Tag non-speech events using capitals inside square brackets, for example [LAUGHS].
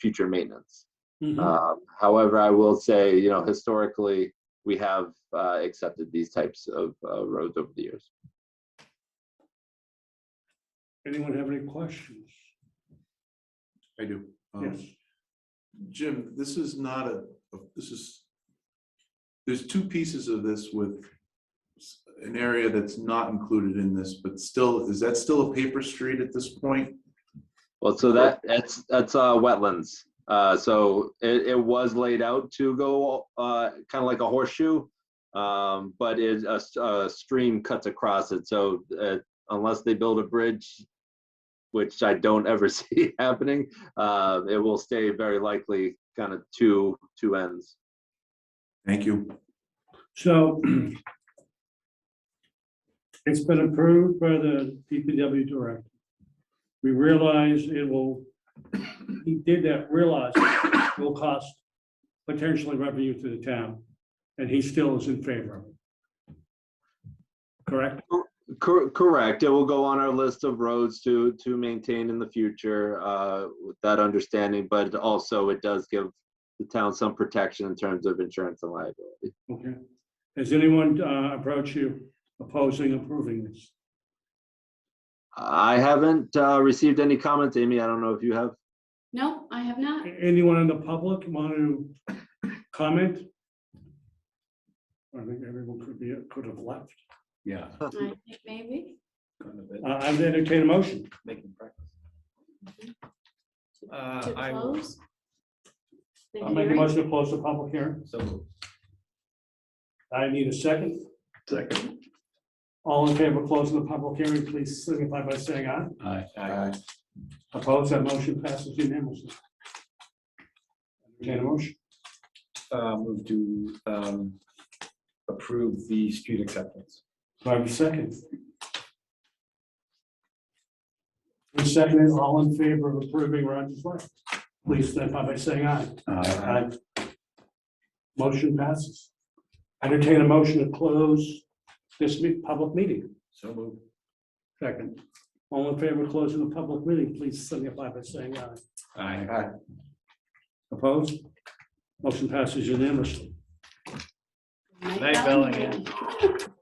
future maintenance. Mhm. Um, However, I will say, you know, historically, we have uh, accepted these types of uh, roads over the years. Anyone have any questions? I do. Um, Yes, Jim, this is not a, a- this is, there's two pieces of this with s- an area that's not included in this, but still, is that still a paper street at this point? Well, so that, that's, that's uh, wetlands. Uh, So it, it was laid out to go kind of like a horseshoe, um, but it, a s- a stream cuts across it. So uh, unless they build a bridge, which I don't ever [LAUGHS] see happening, uh, it will stay very likely kind of two, two ends. Thank you. so [CLEARS THROAT] it's been approved by the DPW director. We realize it will, he did that, realize it will cost potentially revenue to the town, and he still is in favor of it. Correct? Cor- Correct. It will go on our list of roads to, to maintain in the future, uh, with that understanding, but also it does give the town some protection in terms of insurance and liability. Okay. Has anyone uh, approached you opposing approving this? I haven't, uh, received any comments, Amy. I don't know if you have. No, I [LAUGHS] have not. Anyone in the public want to comment? I think everyone could be, could have left. Yeah. I think Maybe. Uh, I've entertained a motion. Making practice. To Uh, I will. close. the I'll make a hearing. motion to close the public hearing. So moved. I need a second. Second. All in favor of closing the public hearing, please signify by saying aye. Aye. Opposed, that motion passes unanimously. Entertain a motion. Uh, move to, um, approve the street acceptance. Do I have a second? Who seconded, all in favor of approving Roger's Way? Please signify by saying aye. Aye. Motion passes. Entertain a motion to close this me- public meeting. So moved. Second. All in favor of closing the public meeting, please signify by saying aye. Aye. Opposed? Motion passes unanimously. Mike Night, Bellingham.